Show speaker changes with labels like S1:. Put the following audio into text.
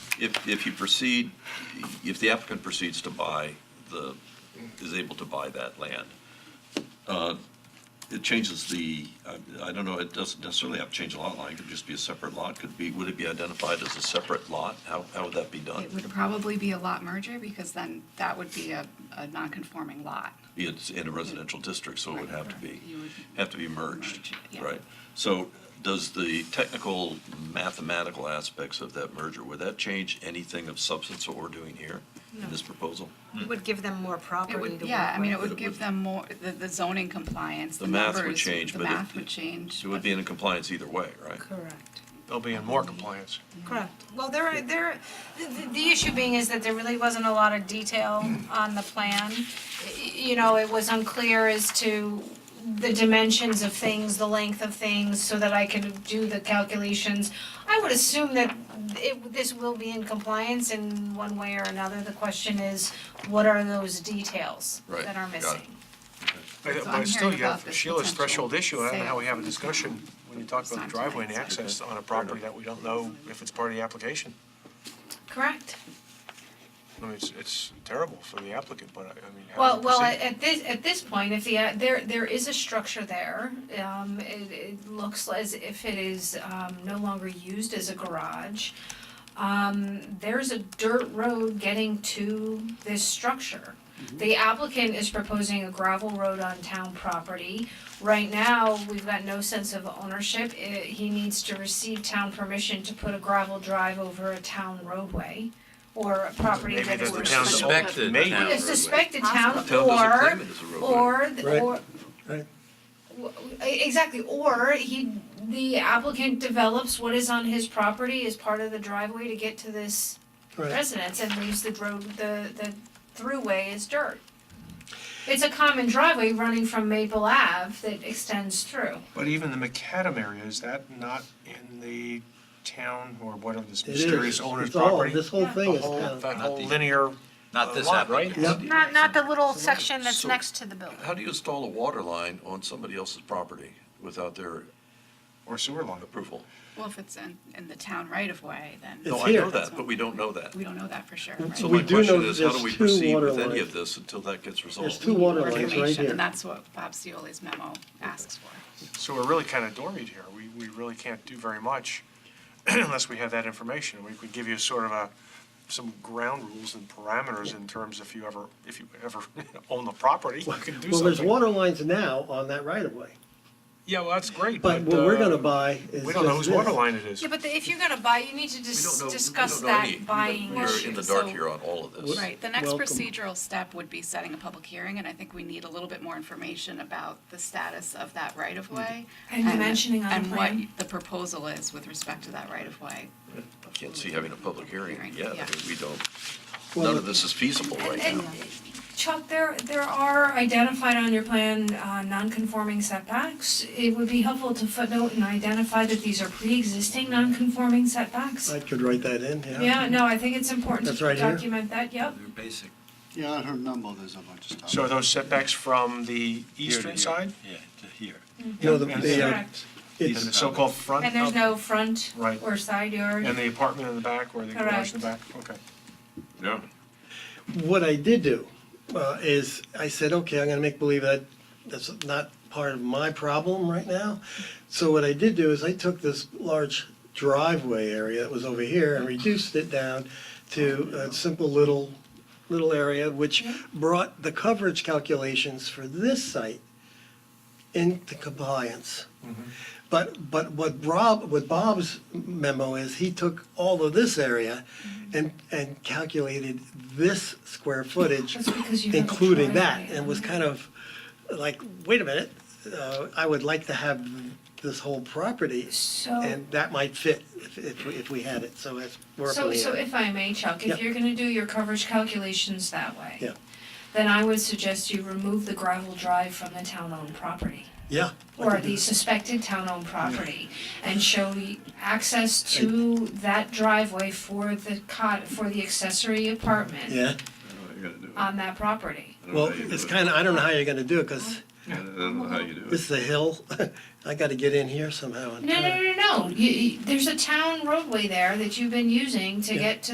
S1: If, if you proceed, if the applicant proceeds to buy the, is able to buy that land, uh, it changes the, I- I don't know, it doesn't necessarily have to change the lot line, it could just be a separate lot, could be, would it be identified as a separate lot? How, how would that be done?
S2: It would probably be a lot merger because then that would be a, a non-conforming lot.
S1: It's in a residential district, so Oh, it would have to be,
S2: You would-
S1: have to be merged,
S2: Merge, yeah.
S1: right? So does the technical mathematical aspects of that merger, would that change anything of substance what we're doing here in this proposal?
S3: It would give them
S2: Mm.
S3: more
S2: It
S3: property
S2: would,
S3: to
S2: yeah, I mean, it
S3: work with.
S2: would give them more, the, the zoning compliance, the
S1: The math
S2: numbers.
S1: would change, but
S2: The
S1: it-
S2: math would change.
S1: It would be in compliance either way, right?
S3: Correct.
S4: They'll be in more compliance.
S3: Correct. Well, there, are- there, the- the, the issue being is that there really wasn't a lot of detail on the plan. Y- You know, it was unclear as to the dimensions of things, the length of things, so that I could do the calculations. I would assume that it, this will be in compliance in one way or another. The question is, what are those details
S1: Right,
S3: that are
S1: got it.
S3: missing?
S4: But
S2: I'm
S4: but still,
S2: hearing
S4: you have
S2: about this
S4: Sheila's
S2: potential
S4: threshold issue, I don't know how we
S2: sale.
S4: have a discussion when you talk
S2: It's
S4: about
S2: not
S4: the driveway and
S2: tonight, so-
S4: access on a property that we don't know if it's part of the application.
S3: Correct.
S4: I mean, it's, it's terrible for the applicant, but I, I mean, how
S3: Well,
S4: do we
S3: well,
S4: proceed?
S3: at at this, at this point, if the, uh, there, there is a structure there, um, it, it looks as if it is, um, no longer used as a garage. Um, there's a dirt road getting to this structure.
S4: Mm-hmm.
S3: The applicant is proposing a gravel road on town property. Right now, we've got no sense of ownership, It- he needs to receive town permission to put a gravel drive over a town roadway or a property
S4: Maybe
S3: that is.
S4: there's the
S3: restricted.
S4: town's
S5: Suspected
S4: Maybe.
S5: town
S3: A
S5: roadway.
S3: suspected
S1: The
S3: town
S1: town doesn't
S3: or,
S1: claim it as a roadway.
S3: or, the- or. W- w- Exactly, or he, the applicant develops what is on his property as part of the driveway to get to this residence and leaves the road, the, the throughway as dirt. It's a common driveway running from Maple Ave that extends through.
S4: But even the macadam area, is that not in the town or whatever this
S6: It is,
S4: mysterious owner's
S6: it's all,
S4: property?
S6: this whole thing
S4: The
S6: is
S4: whole, that
S6: town.
S4: whole linear
S5: Not
S4: uh,
S5: this
S4: lot, right?
S5: applicant.
S3: Not, not the little section
S1: that's so- next
S3: to the building.
S1: How do you install a water line on somebody else's property without their
S4: Or sewer line.
S1: approval?
S2: Well, if it's in, in the town right of way, then
S6: It's
S1: No, I know
S6: here.
S1: that, but we don't know that.
S2: we don't know that for sure, right?
S1: So
S6: We
S1: my
S6: do
S1: question
S6: know
S1: is,
S6: that
S1: how do
S6: there's
S1: we
S6: two
S1: proceed
S6: water
S1: with any
S6: lines.
S1: of this until that gets resolved?
S6: two water
S2: More
S6: lines right
S2: information,
S6: here.
S2: And that's what Bob Cioli's memo asks for.
S4: So we're really kind of dormied here. We, we really can't do very much unless we have that information. We could give you sort of a, some ground rules and parameters in terms if you ever, if you ever own the property, you can do something.
S6: Well, there's water lines now on that right of way,
S4: Yeah, well, that's great, but.
S6: but what we're gonna
S4: uh,
S6: buy is
S4: We don't know
S6: just
S4: whose water
S6: this.
S4: line it is.
S3: Yeah, but the- if you're gonna buy, you need to
S1: We
S3: dis-
S1: don't know- we
S3: discuss
S1: don't know
S3: that
S1: any-
S3: buying
S1: We're
S3: issue,
S1: in the dark
S3: so-
S1: here on all of this.
S2: Right, the next
S6: Welcome.
S2: procedural step would be setting a public hearing, and I think we need a little bit more information about the status of that right of way.
S3: And dimensioning on the
S2: And
S3: plan.
S2: what the proposal is with respect to that right of way.
S1: I Can't see having a public hearing
S2: Hearing,
S1: yet. I
S2: yeah.
S1: mean, we don't,
S6: Well,
S1: none of this is feasible right
S3: And-
S1: now.
S3: Chuck, there, there are identified on your plan, uh, non-conforming setbacks. It would be helpful to footnote and identify that these are pre-existing non-conforming setbacks.
S6: I could write that in, yeah.
S3: Yeah, no, I think it's important
S6: That's
S3: to
S6: right here?
S3: document that, yep.
S5: They're basic.
S7: Yeah, on her number, there's a bunch of stuff.
S4: So are those setbacks from the eastern side?
S5: Yeah, to here.
S6: No, the,
S4: Yeah.
S6: the, uh,
S3: Correct.
S4: And the
S6: it's,
S4: so-called front?
S3: And there's no front
S4: Right.
S3: or side yard.
S4: And the apartment in the back or the garage in the back? Okay.
S1: Yeah.
S6: what I did do, uh, is I said, okay, I'm gonna make believe that that's not part of my problem right now. So what I did do is I took this large driveway area that was over here and reduced it down to a simple little, little area, which brought the coverage calculations for this site into compliance.
S3: Mm-hmm.
S6: But, but what Rob, what Bob's memo is, he took all of this area
S3: Mm-hmm.
S6: and, and calculated this square footage,
S3: That's because you have a
S6: including that,
S3: driveway.
S6: and was kind of like, wait a minute, uh, I would like to have this whole property,
S3: So,
S6: and that might fit if, if, we- if we had it, so that's, we're up in
S3: so,
S6: the
S3: so
S6: air.
S3: if I may, Chuck, if
S6: Yep.
S3: you're gonna do your coverage calculations that way,
S6: Yeah.
S3: then I would suggest you remove the gravel drive from the town-owned property.
S6: Yeah. I
S3: or
S6: could do
S3: the
S6: that.
S3: suspected town-owned property and show y- access to that driveway for the cot, for the accessory apartment
S6: Yeah,
S3: on that property.
S6: Um, well, it's kinda, I don't know how you're gonna do it, cause
S5: I don't know how you do
S6: this is a hill, I gotta get in here somehow and.
S3: No, no, no, no, no, you, you- there's a town roadway there that you've been using to
S6: Yeah.
S3: get to